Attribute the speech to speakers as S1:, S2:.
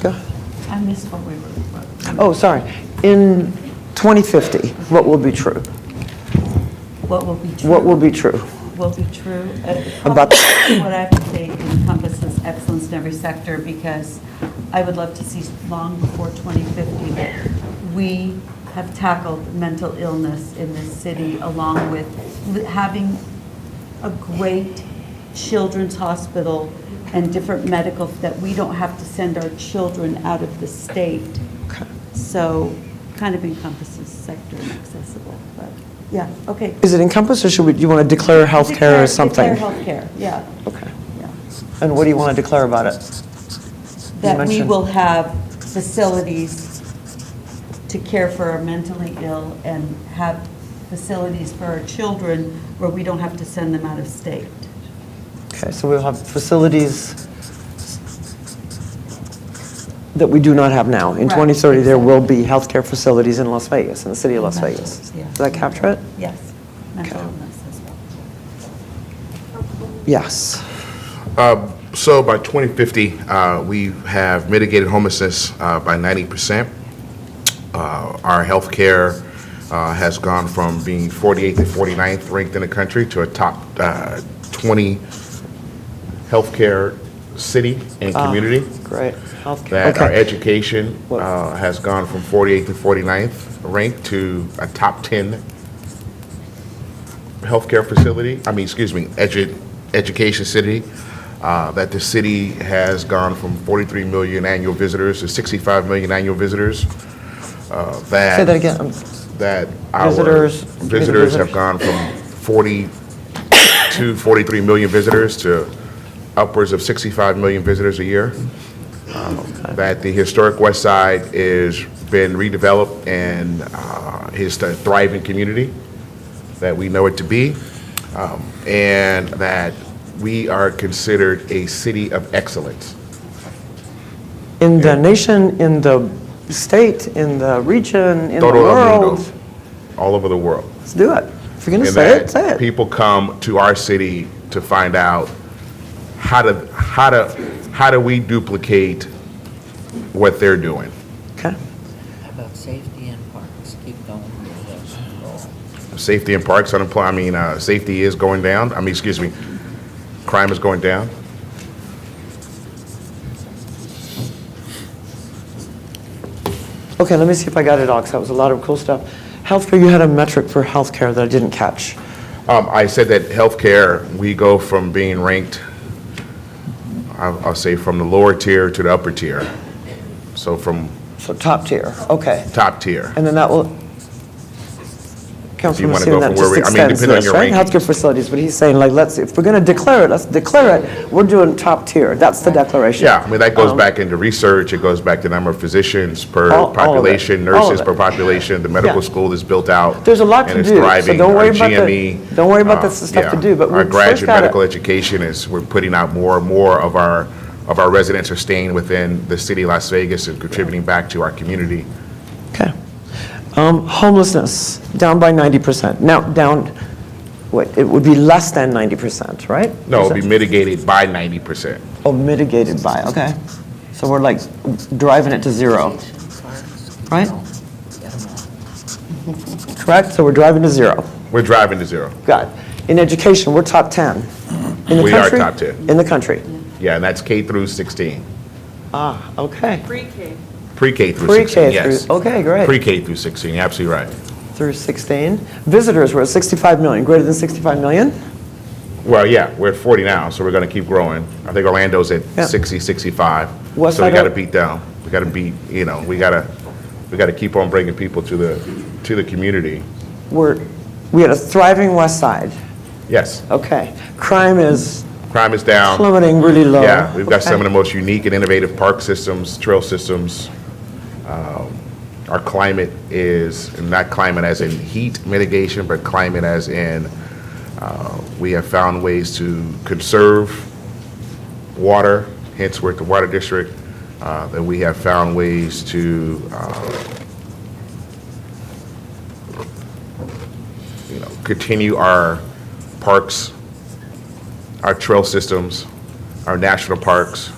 S1: Go ahead.
S2: I missed what we were,
S1: Oh, sorry. In 2050, what will be true?
S2: what will be true.
S1: What will be true?
S2: Will be true. Uh,
S1: About-
S2: probably What I would say encompasses excellence in every sector, because I would love to see long before 2050 that we have tackled mental illness in this city, along with li- having a great children's hospital and different medical, that we don't have to send our children out of the state.
S1: Okay.
S2: So kind of encompasses sector and accessible, but, yeah, okay.
S1: Is it encompass, or should we, you want to declare healthcare
S2: Declare-
S1: or something?
S2: Declare healthcare, yeah,
S1: Okay.
S2: yeah.
S1: And what do you want to declare about it?
S2: That we
S1: mentioned-
S2: will have facilities to care for our mentally ill and have facilities for our children where we don't have to send them out of state.
S1: Okay, so we'll have facilities that we do not have now. In
S2: Right,
S1: 2030, there will
S2: exactly.
S1: be healthcare facilities in Las Vegas, in the city of Las
S2: Mental-
S1: Vegas.
S2: yeah.
S1: Does that capture it?
S2: Yes, mental
S1: Okay.
S2: illness as well.
S1: Yes.
S3: Uh, So by 2050, uh, we have mitigated homelessness uh, by 90%. Uh, Our healthcare uh, has gone from being 48th and 49th ranked in the country to a top uh, 20 healthcare city and community.
S1: Uh-huh. Great. Healthcare.
S3: That uh, our
S1: Okay.
S3: education
S1: What-
S3: uh, has gone from 48th to 49th ranked to a top 10 healthcare facility, I mean, excuse me, edu- education city, uh, that the city has gone from 43 million annual visitors to 65 million annual visitors. uh, That.
S1: Say that again. I'm-
S3: That our.
S1: Visitors-
S3: Visitors
S1: visitors.
S3: have gone from 42, 43 million visitors to upwards of 65 million visitors a year. Um, That the historic West Side is been redeveloped and uh, is a thriving community that we know it to be, um, and that we are considered a city of excellence.
S1: In the nation, in the state, in the region, in the
S3: Todo el mundo,
S1: world.
S3: All over the world.
S1: Let's do it. If you're going to
S3: And
S1: say it,
S3: that
S1: say it.
S3: People come to our city to find out how to, how to, how do we duplicate what they're doing?
S1: Okay.
S4: How about safety in parks? Keep going. That's the goal.
S3: Safety in parks, unemployment, I mean, uh, safety is going down, I mean, excuse me, crime is going down.
S1: Okay, let me see if I got it all, because that was a lot of cool stuff. Healthcare, you had a metric for healthcare that I didn't catch.
S3: Um, I said that healthcare, we go from being ranked, I'll, I'll say from the lower tier to the upper tier. So from
S1: So top tier, okay.
S3: top tier.
S1: And then that will,
S3: you
S1: Councilman
S3: wanna
S1: Messina,
S3: go from
S1: that
S3: where
S1: just
S3: we- I mean,
S1: extends
S3: depending on
S1: this,
S3: your
S1: right?
S3: ranking.
S1: Healthcare facilities, but he's saying, like, let's, if we're going to declare it, let's declare it. We're doing top tier. That's the declaration. Um,
S3: Yeah, I mean, that goes back into research, it goes back to number of physicians per
S1: All- all of it.
S3: population,
S1: All of
S3: nurses
S1: it.
S3: per population, the medical
S1: Yeah.
S3: school is built out.
S1: There's a lot to
S3: and it's
S1: do, so
S3: thriving.
S1: don't
S3: Our
S1: worry about the-
S3: GME,
S1: don't worry about
S3: uh,
S1: the stuff to
S3: yeah,
S1: do, but
S3: Our
S1: we first
S3: graduate
S1: gotta-
S3: medical education is, we're putting out more and more of our, of our residents are staying within the city of Las Vegas and contributing back to our community.
S1: Okay. Um, Homelessness, down by 90%. Now, down, what, it would be less than 90%, right?
S3: No,
S1: Is
S3: it'll be
S1: that-
S3: mitigated by 90%.
S1: Oh, mitigated by, okay. So we're like driving it to zero,
S4: Safety in parks, keep
S1: Right.
S4: going. Get 'em all.
S1: correct? So we're driving to zero.
S3: We're driving to zero.
S1: Got it. In education, we're top 10. In the
S3: We are
S1: country?
S3: top 10.
S1: In the country.
S3: Yeah, and that's K through 16.
S1: Ah, okay.
S3: Pre-K through
S1: Pre-K
S3: 16,
S1: through-
S3: yes.
S1: okay, great.
S3: Pre-K through 16, you're absolutely right.
S1: Through 16. Visitors, we're at 65 million, greater than 65 million?
S3: Well, yeah, we're at 40 now, so we're going to keep growing. I think Orlando's at
S1: Yeah.
S3: 60, 65.
S1: West
S3: So we
S1: side
S3: got to
S1: up.
S3: beat down. We got to beat, you know, we got to, we got to keep on bringing people to the, to the community.
S1: We're, we had a thriving West Side.
S3: Yes,
S1: Okay. Crime is
S3: crime is down.
S1: plummeting really low.
S3: Yeah, we've got some of
S1: Okay.
S3: the most unique and innovative park systems, trail systems. Um, Our climate is, not climate as in heat mitigation, but climate as in, uh, we have found ways to conserve water, hence we're at the Water District, uh, that we have found ways to, uh, you know, continue our parks our trail systems, our national parks,